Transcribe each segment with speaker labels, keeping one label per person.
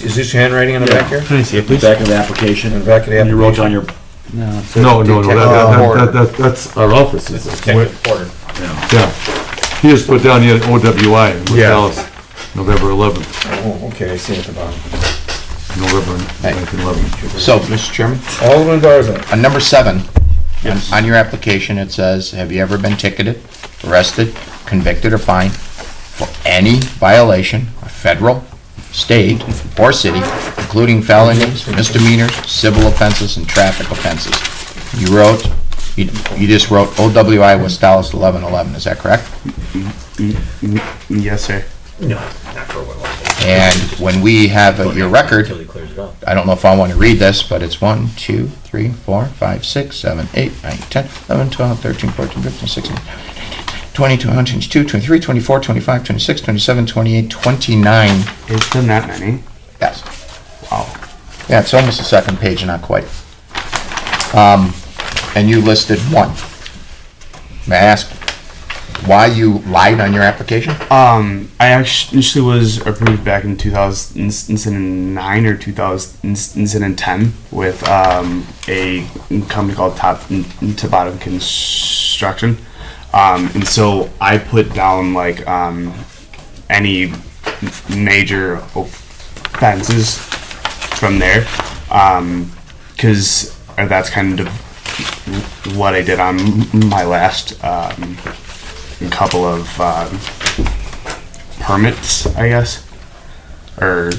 Speaker 1: this your handwriting in the back here?
Speaker 2: Can I see it, please?
Speaker 3: Back of the application.
Speaker 1: In the back of the
Speaker 3: When You wrote down
Speaker 1: application.
Speaker 3: your,
Speaker 2: No,
Speaker 4: No.
Speaker 2: no, no,
Speaker 1: Detective
Speaker 2: that, that, that, that- that's our offices,
Speaker 1: Detective Porter.
Speaker 2: yeah. He just put down here OWI, in
Speaker 1: Yeah.
Speaker 2: Dallas, November eleventh,
Speaker 1: Oh, okay, I see it at the bottom.
Speaker 2: November
Speaker 5: Hey.
Speaker 2: nineteen eleven.
Speaker 5: So, Mr. Chairman,
Speaker 1: Alderman Garza.
Speaker 5: on number seven, on- on your application, it says, have you ever been ticketed, arrested, convicted, or fined for any violation of federal, state, or city, including felonies, misdemeanors, civil offenses, and traffic offenses? You wrote, you you just wrote OWI West Dallas 1111, is that correct?
Speaker 4: Yes, sir.
Speaker 5: And when we have uh, your record,
Speaker 3: until he clears it up.
Speaker 5: I don't know if I want to read this, but it's 1, 2, 3, 4, 5, 6, 7, 8, 9, 10, 11, 12, 13, 14, 15, 16, 22, 22, 23, 24, 25, 26, 27, 28, 29.
Speaker 4: It's been that many.
Speaker 5: Yes.
Speaker 4: Wow.
Speaker 5: Yeah, it's almost the second page, not quite. Um, And you listed one. May I ask why you lied on your application?
Speaker 1: Uh,
Speaker 4: Um, I actu- initially was approved back in 2009 or 2010 with um, a company called Top to Bottom Construction, um, and so I put down like um, any major offenses from there, because that's kind of what I did on my last um, couple of. Um, permits, I guess, or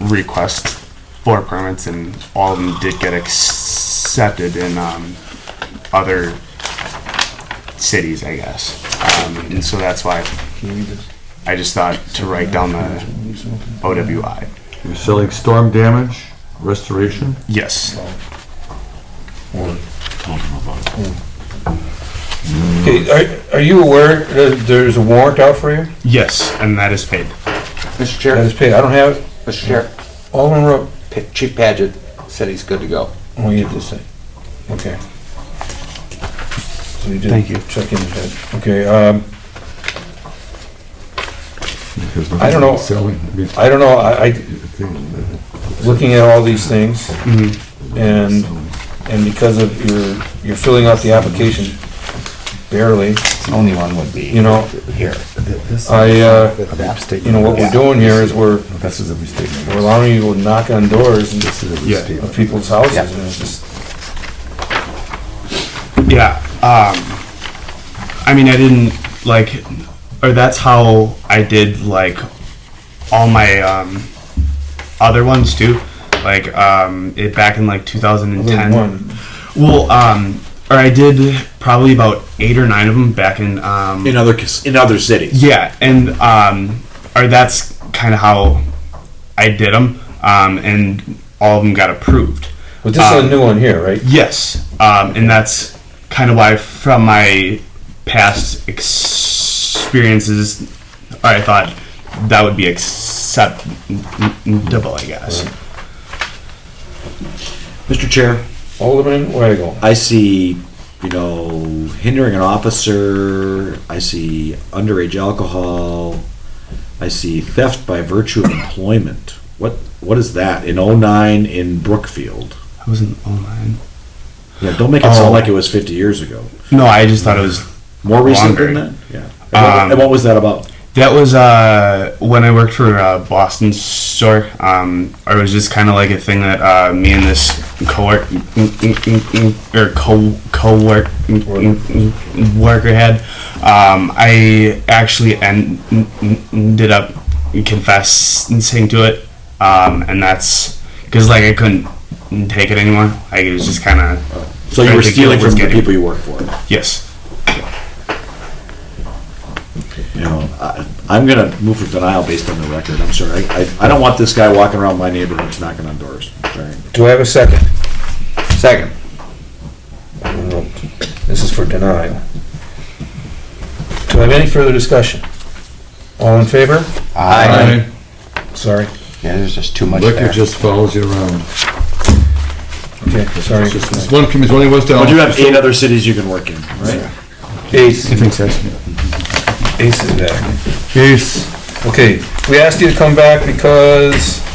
Speaker 4: requests for permits, and all of them did get accepted in um, other cities, I guess. Um, and so that's why I just thought to write down the OWI.
Speaker 2: You're selling storm damage, restoration,
Speaker 4: Yes.
Speaker 1: Hmm. Okay, are, are you aware that there's a warrant out for you?
Speaker 4: Yes, and that is paid.
Speaker 6: Mr.
Speaker 1: That
Speaker 6: Chair,
Speaker 1: is paid, I don't have it.
Speaker 6: Mr. Chair,
Speaker 1: Alderman Rowe.
Speaker 6: Pa- Chief Paget said he's good to go.
Speaker 1: Oh, you did say, okay. So you did.
Speaker 4: Thank you.
Speaker 1: Check in with that, okay, um,
Speaker 2: because.
Speaker 1: I don't know.
Speaker 2: Selling, I mean,
Speaker 1: I don't know, I, I,
Speaker 2: thing,
Speaker 1: looking at all these things, and, and because of your, you're filling out the application barely,
Speaker 5: The only one would be
Speaker 1: you know,
Speaker 5: here.
Speaker 1: I, uh, you
Speaker 2: you
Speaker 1: know, what we're doing here is we're,
Speaker 2: This is a mistake.
Speaker 1: we're allowing you to knock on doors and-
Speaker 2: This is a
Speaker 4: Yeah.
Speaker 2: mistake.
Speaker 1: of people's houses,
Speaker 5: Yeah.
Speaker 1: and it's just,
Speaker 4: Yeah. Um, I mean, I didn't like, or that's how I did like all my um, other ones too. Like um, it back in like 2010.
Speaker 1: one,
Speaker 4: Well, um, or I did probably about eight or nine of them back in. Um,
Speaker 3: In other, cas- in other cities.
Speaker 4: yeah, and um, or that's kind of how I did them, um, and all of them got approved.
Speaker 1: but this is a new one here, right?
Speaker 4: Yes, um, and that's kind of why, from my past experiences, I thought that would be acceptable, I guess.
Speaker 3: Mr. Chair,
Speaker 1: Alderman Weigel.
Speaker 3: I see, you know, hindering an officer, I see underage alcohol, I see theft by virtue of employment. What, what is that in oh-nine in Brookfield?
Speaker 4: I wasn't online.
Speaker 3: Yeah, don't make it sound
Speaker 4: Oh.
Speaker 3: like it was fifty years ago.
Speaker 4: No, I just thought it was.
Speaker 3: More recent than
Speaker 4: Longer.
Speaker 3: that? Yeah. And what-
Speaker 4: Um,
Speaker 3: And what was that about?
Speaker 4: That was uh, when I worked for uh, Boston store. Um, or it was just kind of like a thing that uh, me and this co-work or co co-work worker had. Um, I actually en- ended up confessing to it, um, and that's because like I couldn't take it anymore. Like it was just kind of
Speaker 3: So you
Speaker 4: I
Speaker 3: were
Speaker 4: think
Speaker 3: stealing
Speaker 4: it was
Speaker 3: from the
Speaker 4: getting-
Speaker 3: people you work for.
Speaker 4: yes.
Speaker 3: You know, I, I'm gonna move for denial based on the record. I'm sorry. I, I don't want this guy walking around my neighborhoods knocking on doors. Sorry.
Speaker 1: Do I have a second?
Speaker 6: Second.
Speaker 1: This is for denial. Do I have any further discussion? All in favor?
Speaker 5: I,
Speaker 1: Sorry.
Speaker 5: yeah, there's just too much
Speaker 2: Liquor
Speaker 5: there.
Speaker 2: just follows you around.
Speaker 1: Okay, sorry.
Speaker 2: It's one community, one West
Speaker 3: But
Speaker 2: Dallas.
Speaker 3: you have eight other cities you can work in, right?
Speaker 1: Ace,
Speaker 2: Thanks, guys.
Speaker 1: Ace is back.
Speaker 2: Peace.
Speaker 1: Okay, we asked you to come back because